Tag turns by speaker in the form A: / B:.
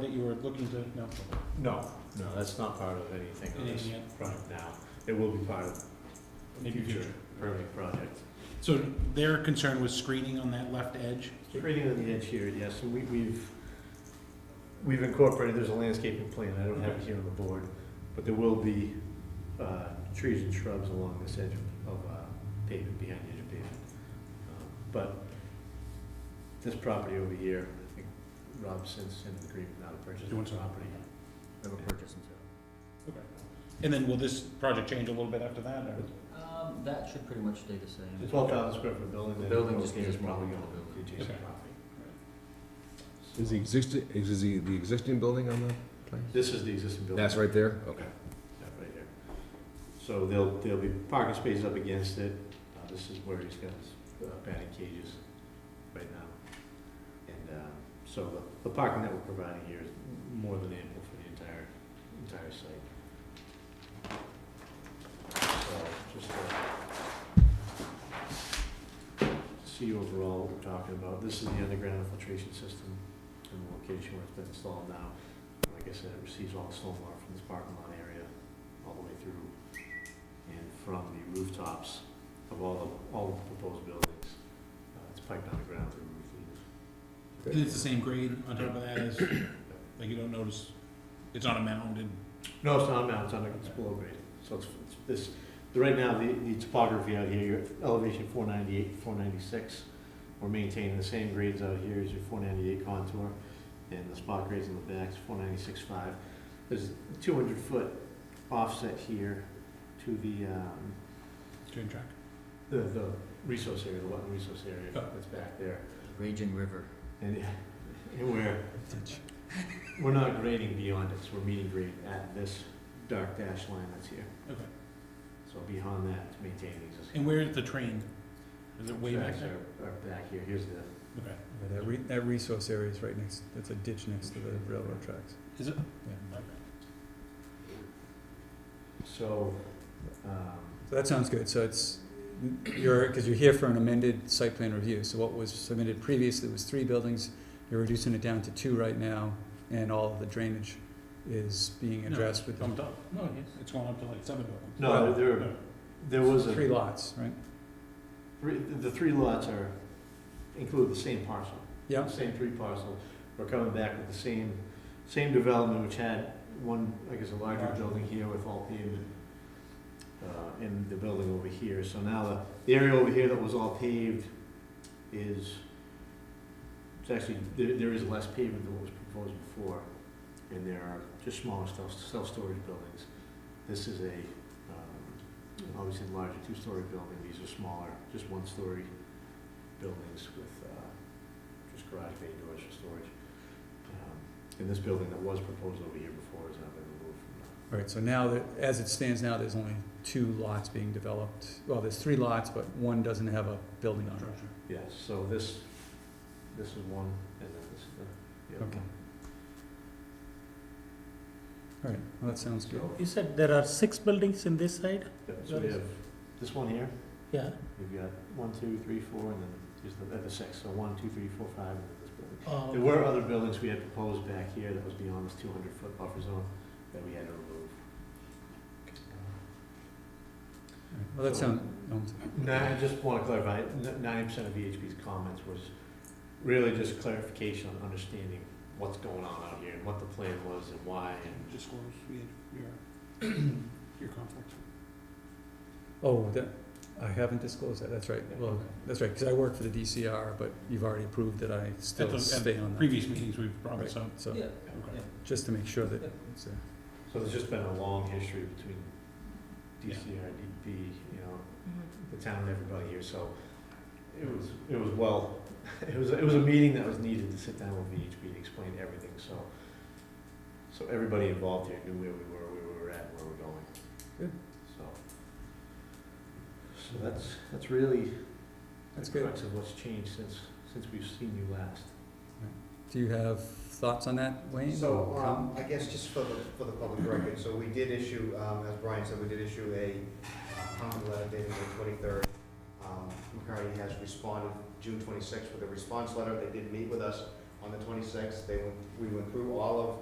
A: that you were looking to, no,
B: No, no, that's not part of anything on this
A: anything yet?
B: project now. It will be part of
A: Maybe
B: future
A: future.
B: permanent projects.
A: So their concern was screening on that left edge?
B: Creating on the edge here, yes, and we, we've, we've incorporated, there's a landscaping plan, I don't have it here on the board, but there will be, uh, trees and shrubs along this edge of, of uh, pavement, behind the edge of pavement. Um, But this property over here, I think Rob since in agreement not to purchase
A: You want
B: the
A: some?
B: property.
C: Never purchase and sell.
A: Okay. And then will this project change a little bit after that, or?
D: Um, that should pretty much stay the
B: The
D: same.
B: twelve thousand square foot building.
D: The
B: that
D: building just
B: goes
D: needs
B: here
D: more
B: probably
D: than
B: gonna
D: the
B: be
D: building.
B: adjacent
A: Okay.
B: property.
C: Is the existing, is the, the existing building on the place?
B: This is the existing building.
C: That's right there? Okay.
B: That right here. So there'll, there'll be parking spaces up against it. Uh, this is where he's got his uh, batting cages right now. And, um, so the, the parking that we're providing here is more than ample for the entire, entire site. So, just to see overall what we're talking about. This is the underground filtration system and the location where it's been installed now. Like I said, it receives all the stormwater from this parking lot area, all the way through, and from the rooftops of all the, all the proposed buildings. Uh, It's piped underground through roof leaders.
A: And it's the same grade on top of that as, like you don't notice, it's on a mound and,
B: No, it's not mounted, it's under, it's below grade. So it's, it's this, the- right now, the, the topography out here, you're at elevation four ninety-eight, four ninety-six. We're maintaining the same grades out here as your four ninety-eight contour, and the spot grades in the back is four ninety-six five. There's two hundred foot offset here to the, um,
A: train track.
B: the, the resource area, the wetland resource area
A: Oh.
B: that's back there.
D: Raging River.
B: And, and we're, we're not grading beyond it, so we're meeting grade at this dark dash line that's here.
A: Okay.
B: So beyond that, to maintain the existing.
A: And where's the train? Is it way back
B: tracks
A: there?
B: are- Are back here, here's the,
A: Okay.
E: That re- that resource area is right next, that's a ditch next to the railroad tracks.
A: Is it?
E: Yeah.
A: Okay.
B: so, um,
E: So that sounds good, so it's, you're, because you're here for an amended site plan review, so what was submitted previously was three buildings, you're reducing it down to two right now, and all the drainage is being
A: No,
E: addressed with
A: Bumped up? No, it's gone up to like seven buildings. Oh.
B: no,
E: Well,
B: there,
A: uh,
B: there- there was a,
E: three lots, right?
B: three- the three lots are, include the same parcel.
E: Yeah.
B: the Same three parcel, we're coming back with the same, same development, which had one, I guess, a larger
A: Larger.
B: building here with all pavement, uh, and the building over here, so now the, the area over here that was all paved is, it's actually, there, there is less pavement than what was proposed before, and there are just smaller self, self-storage buildings. This is a, um, obviously larger two-story building, these are smaller, just one-story buildings with, uh, just garage bay doors for storage. Um, And this building that was proposed over here before has now been removed from the.
E: All right, so now that, as it stands now, there's only two lots being developed, well, there's three lots, but one doesn't have a building on it.
A: Structure.
B: Yes, so this, this is one, and then this is the, the other
E: Okay.
B: one.
E: All right, well, that sounds good.
B: You said there are six buildings in this side? So we have this one here. Yeah. We've got one, two, three, four, and then there's the, uh, the six, so one, two, three, four, five, and then this building.
E: Oh,
B: There were other buildings we had proposed back here that was beyond this two hundred foot buffer zone that we had to remove.
E: All right, Well, that
B: So-
E: sounds, um,
B: No, I just want to clarify, ninety percent of VHP's comments was really just clarification on understanding what's going on out here and what the plan was and why and.
A: Disclose your, your conflict.
E: Oh, that, I haven't disclosed that, that's right, well, that's right, because I work for the DCR, but you've already approved that I
A: At the-
E: still
A: at
E: stay on that.
A: Previous meetings, we've brought this up.
E: So,
D: Yeah,
A: Okay.
D: yeah.
E: just to make sure that,
D: Yeah.
E: it's, uh,
B: So there's just been a long history between
A: Yeah.
B: DCR, DP, you know,
D: Mm-hmm.
B: the town and everybody here, so it was, it was well, it was, it was a meeting that was needed to sit down with VHP to explain everything, so. So everybody involved here knew where we were, where we were at, where we're going.
E: Good.
B: So. So that's, that's really
E: that's
B: the
E: good.
B: crux of what's changed since, since we've seen you last.
E: Do you have thoughts on that, Wayne?
F: So,
E: or
F: um,
E: com-
F: I guess just for the, for the public record, so we did issue, um, as Brian said, we did issue a uh, comment letter dated May twenty-third. Um, McCarty has responded June twenty-sixth with a response letter, they did meet with us,
A: on the twenty-sixth. They went, we went through all of